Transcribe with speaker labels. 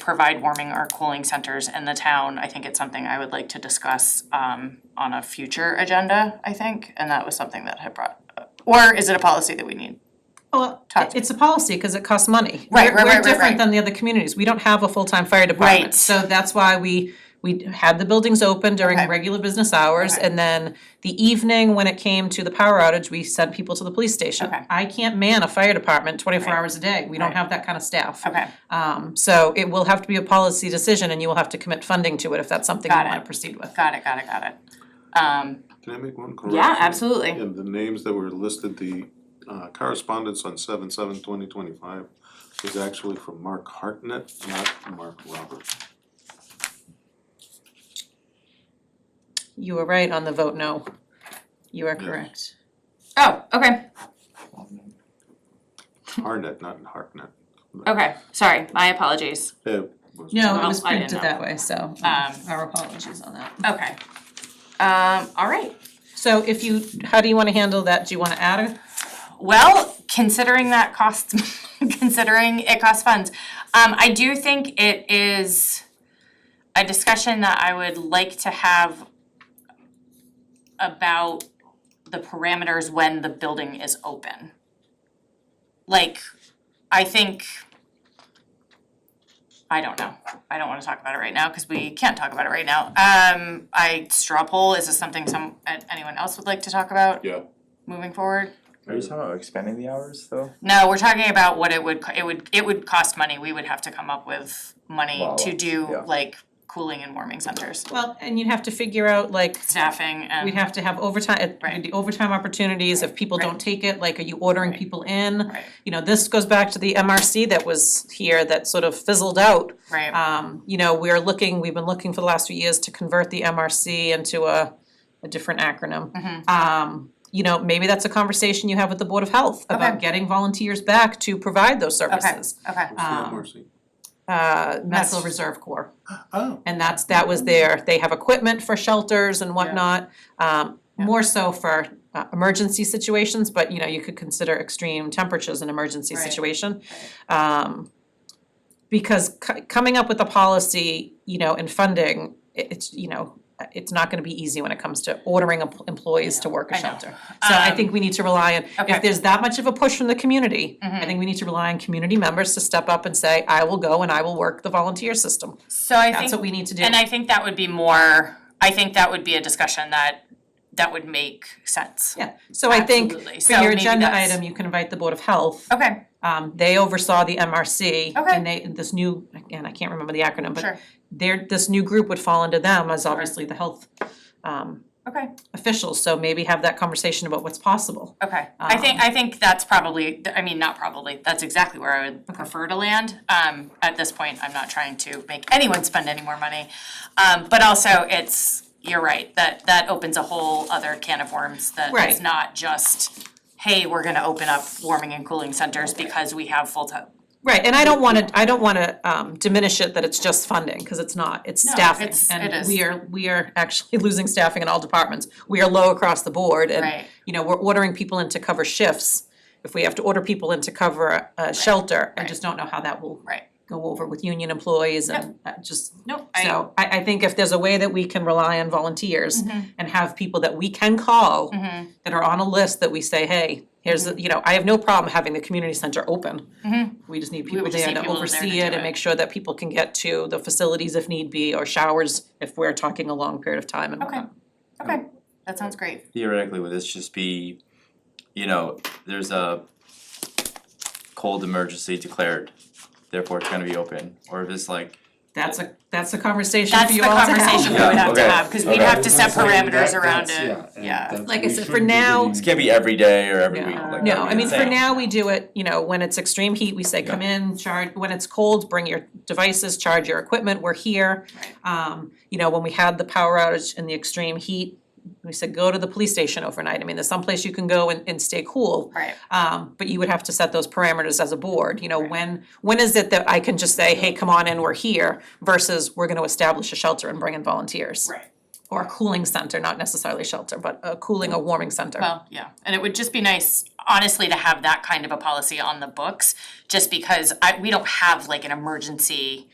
Speaker 1: provide warming or cooling centers in the town, I think it's something I would like to discuss um on a future agenda, I think, and that was something that had brought, or is it a policy that we need?
Speaker 2: Well,
Speaker 1: Talk to
Speaker 2: it's a policy, cause it costs money.
Speaker 1: Right, right,
Speaker 2: We're-
Speaker 1: right, right,
Speaker 2: We're different
Speaker 1: right.
Speaker 2: than the other communities, we don't have a full-time fire department,
Speaker 1: Right.
Speaker 2: so that's why we, we had the buildings open during
Speaker 1: Okay.
Speaker 2: regular business hours,
Speaker 1: Okay.
Speaker 2: and then the evening when it came to the power outage, we sent people to the police station.
Speaker 1: Okay.
Speaker 2: I can't man a fire department twenty-four
Speaker 1: Right.
Speaker 2: hours a day, we don't
Speaker 1: Right.
Speaker 2: have that kind of staff.
Speaker 1: Okay,
Speaker 2: Um, so it will have to be a policy decision, and you will have to commit funding to it if that's something you
Speaker 1: Got it.
Speaker 2: wanna proceed with.
Speaker 1: got it, got it, got it. Um
Speaker 3: Can I make one correction?
Speaker 1: yeah, absolutely,
Speaker 3: And the names that were listed, the uh, correspondence on seven seven twenty twenty-five was actually from Mark Hartnett, not Mark Roberts.
Speaker 2: You were right on the vote no, you are
Speaker 3: Yes.
Speaker 2: correct.
Speaker 1: oh, okay,
Speaker 3: Harnett, not Hartnett.
Speaker 1: okay, sorry, my apologies.
Speaker 3: It was-
Speaker 2: No, it
Speaker 1: Well,
Speaker 2: was
Speaker 1: I didn't
Speaker 2: printed
Speaker 1: know.
Speaker 2: that way, so um,
Speaker 1: Um,
Speaker 2: our apologies on that.
Speaker 1: Okay. Um, all right.
Speaker 2: So if you, how do you wanna handle that? Do you wanna add it?
Speaker 1: Well, considering that costs, considering it costs funds, um, I do think it is a discussion that I would like to have about the parameters when the building is open. Like, I think, I don't know, I don't wanna talk about it right now, cause we can't talk about it right now. Um, I, straw poll, is this something some, anyone else would like to talk about?
Speaker 3: Yeah.
Speaker 1: Moving forward?
Speaker 4: Are you talking about expanding the hours though?
Speaker 1: No, we're talking about what it would, co- it would, it would cost money, we would have to come up with money
Speaker 4: Wow,
Speaker 1: to do
Speaker 4: yeah.
Speaker 1: like cooling and warming centers,
Speaker 2: Well, and you'd have to figure out like,
Speaker 1: staffing
Speaker 2: we'd
Speaker 1: and,
Speaker 2: have to have overtime,
Speaker 1: Right.
Speaker 2: the overtime opportunities, if people
Speaker 1: Right.
Speaker 2: don't take it, like, are you ordering
Speaker 1: Right.
Speaker 2: people in?
Speaker 1: Right.
Speaker 2: You know, this goes back to the MRC that was here that sort of fizzled out.
Speaker 1: right,
Speaker 2: Um, you know, we're looking, we've been looking for the last few years to convert the MRC into a, a different acronym.
Speaker 1: Mhm.
Speaker 2: Um, you know, maybe that's a conversation you have with the Board of Health
Speaker 1: Okay.
Speaker 2: about getting volunteers back to provide those
Speaker 1: okay,
Speaker 2: services.
Speaker 1: okay,
Speaker 3: What's the
Speaker 2: Um,
Speaker 3: MRC?
Speaker 2: Uh, Massillon
Speaker 1: That's-
Speaker 2: Reserve Corps,
Speaker 3: Oh,
Speaker 2: and that's, that was their, they have equipment for shelters and whatnot. Um,
Speaker 1: Yeah.
Speaker 2: more so for, uh, emergency situations, but you know, you could consider extreme temperatures an emergency
Speaker 1: Right.
Speaker 2: situation um because c- coming up with a policy, you know, and funding, it- it's, you know, it's not gonna be easy when it comes to ordering em- employees to work
Speaker 1: I
Speaker 2: a
Speaker 1: know.
Speaker 2: shelter. So I
Speaker 1: Um,
Speaker 2: think we need to rely on,
Speaker 1: okay.
Speaker 2: if there's that much of a push from the community, I
Speaker 1: Mhm.
Speaker 2: think we need to rely on community members to step up and say, I will go and I will work the volunteer system.
Speaker 1: so I
Speaker 2: That's what
Speaker 1: think,
Speaker 2: we need to do.
Speaker 1: and I think that would be more, I think that would be a discussion that, that would make sense.
Speaker 2: Yeah, so I think
Speaker 1: Absolutely.
Speaker 2: for
Speaker 1: So
Speaker 2: your
Speaker 1: maybe
Speaker 2: agenda
Speaker 1: that's-
Speaker 2: item, you can invite the Board of Health
Speaker 1: Okay,
Speaker 2: Um, they oversaw the MRC
Speaker 1: Okay.
Speaker 2: and they, this new, again, I can't remember the acronym,
Speaker 1: Sure.
Speaker 2: but their, this new group would fall into them as obviously the health um
Speaker 1: okay,
Speaker 2: officials, so maybe have that conversation about what's possible.
Speaker 1: okay, I think, I think that's probably, I mean, not probably, that's exactly where I would prefer to land. Um, at this point, I'm not trying to make anyone spend any more money, um, but also it's, you're right, that, that opens a whole other can of worms that is
Speaker 2: Right.
Speaker 1: not just, hey, we're gonna open up warming and cooling centers because we have full time.
Speaker 2: Right, and I don't wanna, I don't wanna um diminish it that it's just funding, cause it's not, it's
Speaker 1: No,
Speaker 2: staffing.
Speaker 1: it's- it is.
Speaker 2: And we are, we are actually losing staffing in all departments. We are low across the board
Speaker 1: Right.
Speaker 2: and, you know, we're ordering people in to cover shifts. If we have to order people in to cover a- a shelter, I
Speaker 1: right.
Speaker 2: just don't know how that will
Speaker 1: Right.
Speaker 2: go over with union employees and uh, just
Speaker 1: Nope,
Speaker 2: So I I think if there's a way that we can rely on volunteers
Speaker 1: Mm-hmm.
Speaker 2: and have people that we can call that are on a list that we say, hey, here's,
Speaker 1: Mm-hmm.
Speaker 2: the- you know, I have no problem having the community center open. We just need people
Speaker 1: would Mm-hmm. just
Speaker 2: there
Speaker 1: need
Speaker 2: to
Speaker 1: people there to
Speaker 2: oversee
Speaker 1: do
Speaker 2: it
Speaker 1: it.
Speaker 2: and make sure that people can get to the facilities if need be or showers if we're talking a long period of time and
Speaker 1: Okay.
Speaker 2: whatnot.
Speaker 1: Okay, Um, that sounds great.
Speaker 4: Theoretically, would this just be, you know, there's a cold emergency declared, therefore it's gonna be open, or if it's like,
Speaker 2: That's a, that's a conversation
Speaker 1: That's
Speaker 2: for
Speaker 1: the
Speaker 2: you all to have.
Speaker 1: conversation we
Speaker 4: Yeah,
Speaker 1: would have to
Speaker 4: okay,
Speaker 1: have, cause we'd
Speaker 4: okay.
Speaker 1: have to set parameters around
Speaker 5: That's-
Speaker 1: it,
Speaker 5: and
Speaker 1: yeah,
Speaker 5: that's-
Speaker 2: Like I
Speaker 5: we
Speaker 2: said, for
Speaker 5: shouldn't be
Speaker 2: now-
Speaker 5: getting-
Speaker 4: this can't be every day or every
Speaker 2: Yeah.
Speaker 4: week, like
Speaker 2: No, I
Speaker 4: that'd be
Speaker 2: mean, for
Speaker 4: insane.
Speaker 2: now, we do it, you know, when it's extreme heat, we say come in, charge, when it's cold, bring your devices, charge your equipment, we're here. Um, you know, when we had the power outage and the extreme heat, we said go to the police station overnight, I mean, there's someplace you can go and and stay cool.
Speaker 1: right,
Speaker 2: Um, but you would have to set those parameters as a board, you know, when, when is it that I can just say, hey, come on in, we're here, versus we're gonna establish a shelter and bring in volunteers.
Speaker 1: right.
Speaker 2: Or a cooling center, not necessarily shelter, but a cooling or warming center.
Speaker 1: Well, yeah, and it would just be nice, honestly, to have that kind of a policy on the books, just because I, we don't have like an emergency